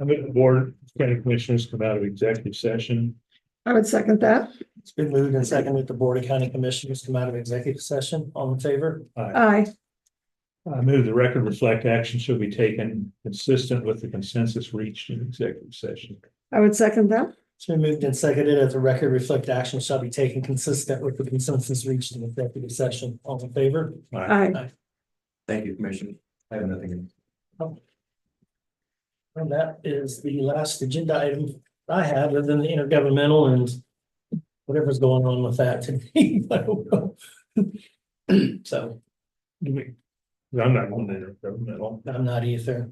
I move the board, of county commissioners come out of executive session. I would second that. It's been moved and seconded. The Board of County Commissioners come out of executive session. All in favor? I Aye. I move the record reflect action should be taken consistent with the consensus reached in executive session. I would second that. It's been moved and seconded that the record reflect action shall be taken consistent with the consensus reached in executive session. All in favor? Aye. Thank you, Commissioner. I have nothing. And that is the last agenda item I have, other than the intergovernmental and whatever's going on with that today. I don't know. So Do we- I'm not on the intergovernmental, I'm not either.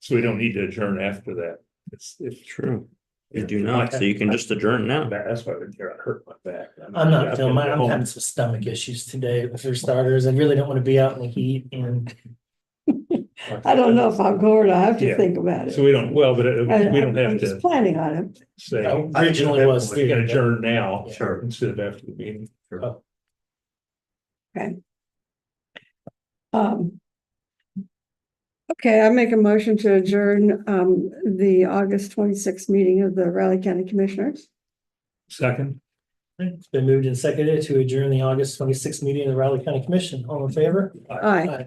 so we don't need to adjourn after that. It's, it's True. You do not, so you can just adjourn now. That's why I hurt my back. I'm not I've feeling, been my- I'm home. having some stomach issues today for starters. I really don't want to be out in the heat and I don't know if I'm going, I have to Yeah. think about it. So we don't, well, but it- I- we don't I'm have Just to planning on it. say. I originally was We can too. adjourn now Sure. instead of after the meeting. Um. Okay, I make a motion to adjourn um the August twenty-sixth meeting of the Raleigh County Commissioners. Second, it's been moved and seconded to adjourn the August twenty-sixth meeting of the Raleigh County Commission. All in favor? Aye.